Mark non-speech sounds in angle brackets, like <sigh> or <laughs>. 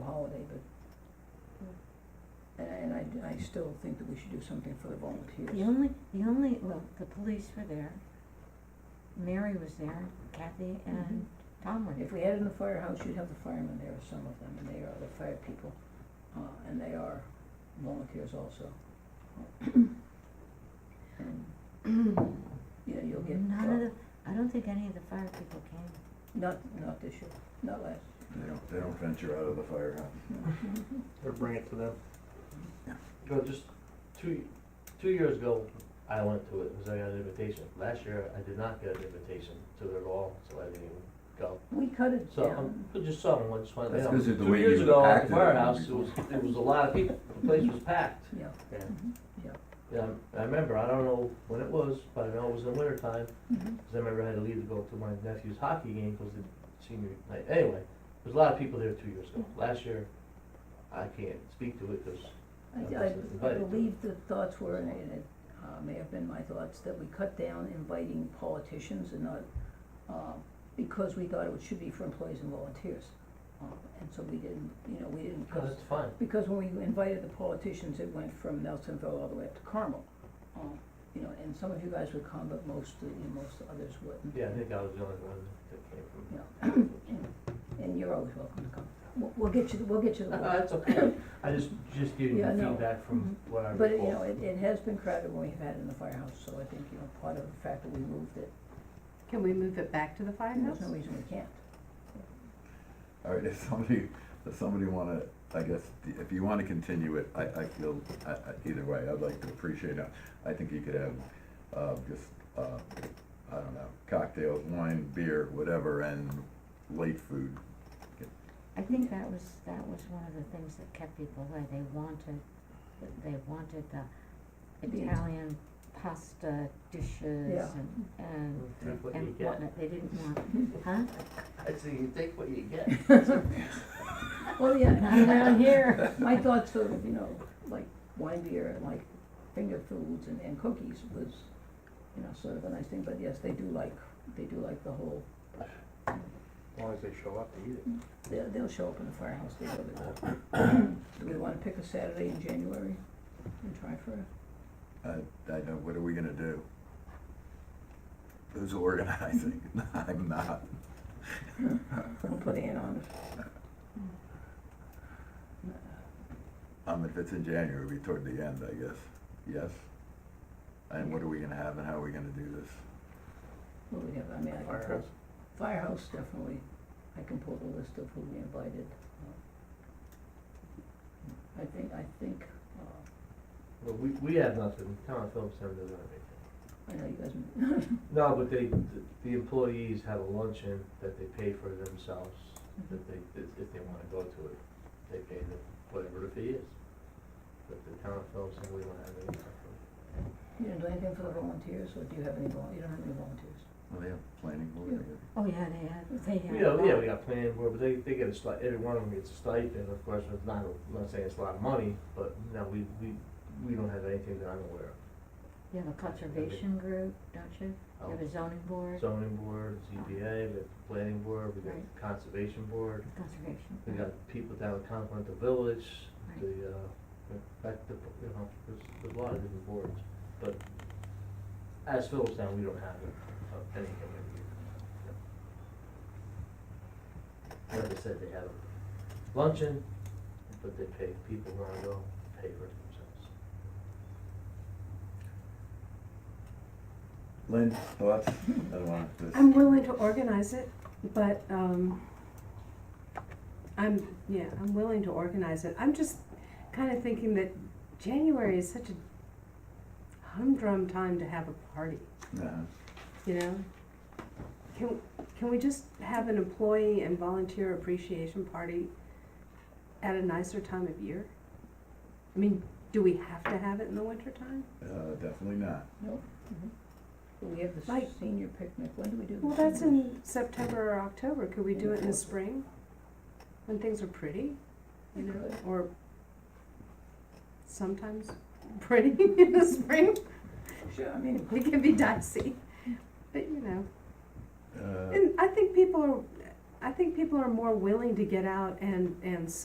I still think that we should do something for the The volunteers. only, the only, well, the police were there, Mary was there, Kathy Mm-hmm. and Tom were there. If we had it in the firehouse, you'd have the firemen there, some of them, and they are the fire people, uh, and they are volunteers also. Um, Yeah, you'll get, None of uh, the, I don't think any of the fire people came. not, not this year, not last. They don't, they don't venture out of the firehouse. Or bring it to them. No, just two, two years ago, I went to it, because I got an invitation. Last year, I did not get an invitation to it at all, so I didn't even go. We cut it So, down, um, but just something, I just wanted to That's know. 'cause of the way Two years you ago, at packed the it. firehouse, it was, it was a lot of people, the place was packed. yeah. And, Mm-hmm. Mhm. yeah, I remember, I don't know when it was, but I know it was in the winter time, Mhm. because I remember I had to leave to go to my nephew's hockey game because the senior night. Anyway, there's a lot of people there two years ago. Last year, I can't speak to it because I, I- I believe the thoughts were, and it uh, may have been my thoughts, that we cut down inviting politicians and not, um, because we thought it should be for employees and volunteers. Um, And so we didn't, you know, we didn't, because, it's fun. because when we invited the politicians, it went from Nelsonville all the way up to Carmel. Um, You know, and some of you guys would come, but most, you know, most others wouldn't. Yeah, I think I was the only one that came from. And- And you're always welcome to come. We'll, we'll get you, the- we'll get you the. <laughs> Uh, <laughs> That's okay. I just, just giving you Yeah, no. Mm-hmm. feedback from what I recall. But, you know, it, it has been crowded when we've had it in the firehouse, so I think, you know, part of the fact that we moved it, Can we move it back to the there's firehouse? no reason we can't. All right, <laughs> if somebody, if somebody wanna, I guess, if you wanna continue it, I, I feel, I, I, either way, I'd like to appreciate it. I think you could have, uh, just, uh, I don't know, cocktails, wine, beer, whatever, and late food. I think Mm-hmm. that was, that was one of the things that kept people away, they wanted, they wanted the The- Italian pasta dishes Yeah. and, and, Mm-hmm. Take what you and get. whatnot, <laughs> they didn't want, huh? I say you take what you get. Well, yeah, Not I mean, I- around here. my thoughts sort of, you know, like wine beer and like finger foods and, and cookies was, you know, sort of a nice thing, but yes, they do like, they do like the whole, As long as they show up to eat it. they'll, they'll show up in the firehouse, they really will. Do we wanna pick a Saturday in January and try for a I, I know, what are we gonna do? Who's organizing? <laughs> I'm not. We'll put Ann on it. Um, if it's in January, it'll be toward the end, I guess, yes? And what are we gonna have and how are we gonna do this? What do we have, I mean, I can pull- Firehouse. Firehouse, definitely, I can pull the list of who we invited. uh, I think, I think, uh, But we, we have nothing. Town of Phillips doesn't have anything. I know you guys, No, but they, the employees have a luncheon that they pay for themselves, that they, if if they wanna go to it, they pay the, whatever the fee is. But the town of Phillips, and we don't have any. you didn't do anything for the volunteers, or do you have any vol, you don't have any volunteers? Well, they have planning board, I guess. Oh, yeah, they had, they had. We have, <laughs> yeah, that. we got planning board, but they, they get a stipend, every one of them gets a stipend, of course, it's not, I'm not saying it's a lot of money, but no, we, we, we don't have anything that I'm aware You have a conservation group, don't you? You have of. a zoning board, Zoning board, ZBA, we have planning board, we got Right. conservation board. conservation. We got people down in Conklin, the village, Right. the, uh, back to, you know, there's, there's a lot of different boards, but as Phillips Town, we don't have uh, anything every year. Like I said, they have a luncheon, but they pay, people who wanna go, pay for it themselves. Lynn, thoughts? I don't want this. I'm willing to organize it, but, um, I'm, yeah, I'm willing to organize it. I'm just kind of thinking that January is such a humdrum time to have a party, No. you know? Can, can we just have an employee and volunteer appreciation party at a nicer time of year? I mean, do we have to have it in the wintertime? Uh, definitely not. Do Mm-hmm. we have the Like- senior picnic, when do we do the Well, that's senior- in September or October. Could we do it in the spring? When things are pretty, you know, or sometimes pretty <laughs> in the spring. Sure, I mean, It can be dicey. But you know, Uh, and I think people are I think people are more willing to get out and and